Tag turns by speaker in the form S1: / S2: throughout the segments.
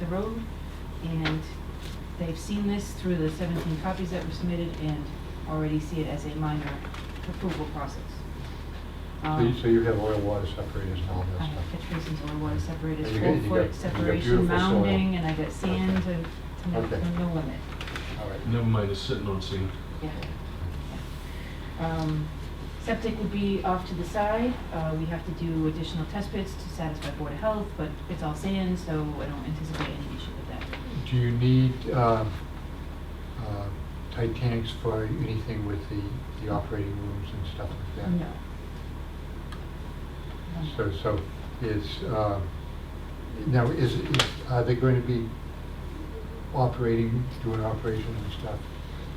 S1: the road, and they've seen this through the seventeen copies that were submitted and already see it as a minor approval process.
S2: So
S1: Um,
S2: you- So you have oil water separators and all
S1: I
S2: that
S1: have
S2: stuff?
S1: catch basins or water separators,
S2: And you
S1: full
S2: got-
S1: foot
S2: you got- you got
S1: separation
S2: beautiful soil.
S1: mounding, and I got sand to,
S2: Okay.
S1: to no,
S2: Okay.
S1: to no limit,
S2: All right.
S3: Never mind, it's sitting on scene.
S1: yeah. yeah. Um, Septic would be off to the side, uh, we have to do additional test pits to satisfy Board of Health, but it's all sand, so I don't anticipate any issue with that.
S2: Do you need um, uh, tight tanks for anything with the, the operating rooms and stuff like that?
S1: No.
S2: So, so it's, uh, now, is, is- are they going to be operating, doing operations and stuff?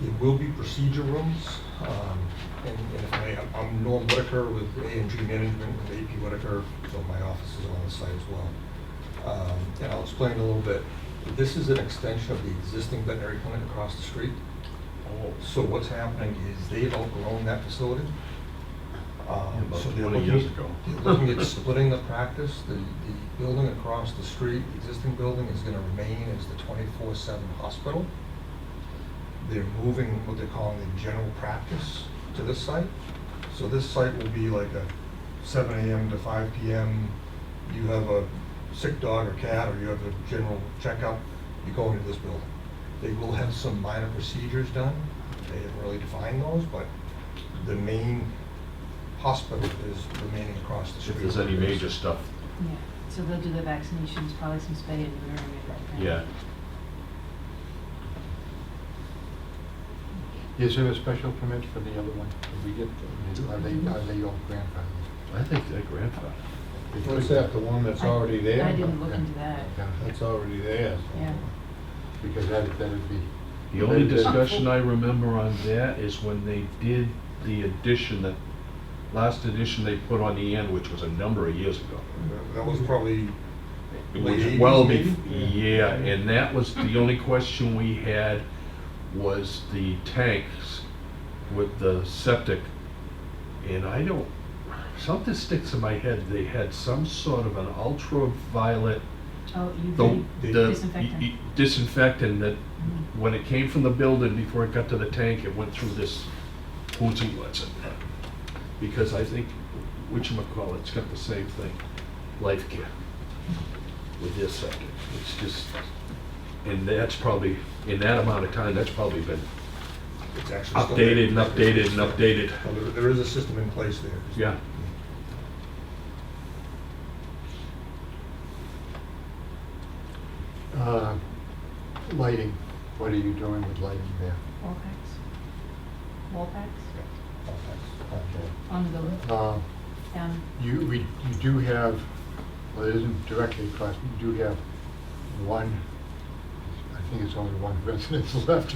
S4: It will be procedure rooms, um, and and if I, I'm Norm Whitaker with AMG Management, with AP Whitaker, so my office is on the site as well. Um, And I'll explain a little bit. This is an extension of the existing veterinary clinic across the street.
S3: Oh.
S4: So what's happening is they've outgrown that facility. Um,
S3: About
S4: so they're
S3: 20
S4: looking-
S3: years ago.
S4: They're looking at splitting the practice. The, the building across the street, the existing building, is gonna remain as the twenty-four seven hospital. They're moving what they're calling the general practice to this site. So this site will be like a seven AM to five PM. You have a sick dog or cat, or you have a general checkup, you go into this building. They will have some minor procedures done. They haven't really defined those, but the main hospital is remaining across the street.
S3: If there's any major stuff,
S1: Yeah, so they'll do the vaccinations, probably some spay and neuter. and that kind of-
S3: yeah.
S2: Is there a special permit for the other one? Did we get, are they, are they all grandfathered?
S3: I think that grandfather.
S5: What's that, the one that's
S1: I-
S5: already there?
S1: I didn't look into that,
S5: That's already there. so-
S1: yeah.
S2: Because that, that'd be,
S3: The only discussion I remember on that is when they did the addition, that last addition they put on the end, which was a number of years ago.
S4: That was probably
S3: It
S4: Late
S3: was
S4: 80s
S3: well
S4: maybe?
S3: bef, yeah, and that was the only question we had was the tanks with the septic. And I don't, something sticks in my head, they had some sort of an ultraviolet,
S1: Oh, you
S3: the,
S1: did,
S3: the
S1: Disinfectant.
S3: y- y- disinfectant that
S1: Mhm.
S3: when it came from the building, before it got to the tank, it went through this hoots and what's it. Because I think, whatchamacallit's got the same thing, life care with this second. It's just, and that's probably, in that amount of time, that's probably been
S4: It's actually still there.
S3: updated and updated and updated.
S4: Well, there- There is a system in place there.
S3: Yeah.
S2: uh, lighting, what are you doing with lighting there?
S1: wall packs, wall packs on the building,
S2: Okay. Uh,
S1: down,
S2: You, we, you do have, well, it isn't directly across, you do have one, I think it's only one residence left.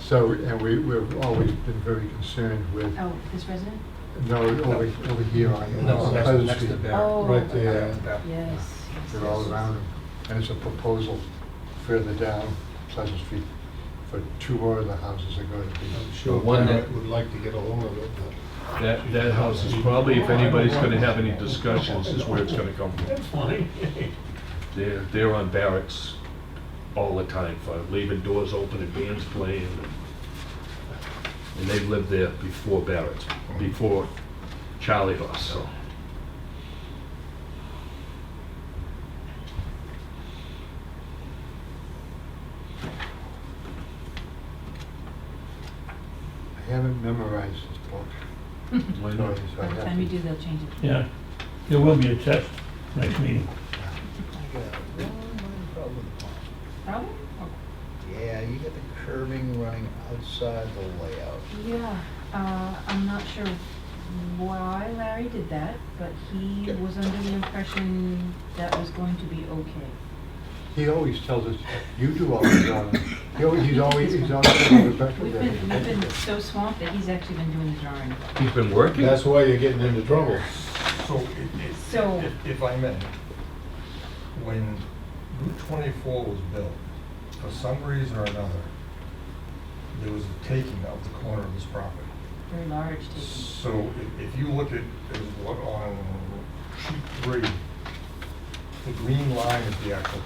S2: So, and we, we've always been very concerned with,
S1: oh, this resident?
S2: no, over, over here on
S4: No,
S2: on
S4: next-
S2: Pleasant
S4: next to
S2: Street.
S4: Barrett.
S1: Oh,
S5: Right
S1: yes,
S5: there.
S4: Yeah.
S1: yes.
S2: They're all
S1: yes,
S2: around them. And it's a proposal further down Pleasant Street for two more of the houses are going to be.
S5: I'm sure
S3: one that-
S5: Barrett would like to get a hold of it, but
S3: That, that house is probably, if anybody's gonna have any discussions, is where it's gonna come from.
S5: fine.
S3: They're, they're on barracks all the time, for leaving doors open and bands playing. And they've lived there before barracks, before Charlie Horse, so.
S2: I haven't memorized this book.
S3: why
S2: Sorry,
S3: not?
S2: so I
S1: By the
S2: have
S1: time you
S2: to-
S1: do, they'll change it.
S6: Yeah, there will be a test next meeting.
S1: Problem?
S7: Yeah, you got the curving running outside the layout.
S1: Yeah, uh, I'm not sure why Larry did that, but he
S7: Okay.
S1: was under the impression that was going to be okay.
S2: He always tells us, you do all the drawing. He always, he's always, he's always on the record.
S1: We've
S2: that
S1: been,
S2: he-
S1: we've been so swamped that he's actually been doing the drawing.
S3: He's been working?
S5: That's why you're getting into trouble.
S4: So, it- it-
S1: So-
S4: if- if I may, when Route 24 was built, for some reason or another, there was a taking of the corner of this property.
S1: Very large taking.
S4: So if- if you look at, is what on sheet three, the green line is the actual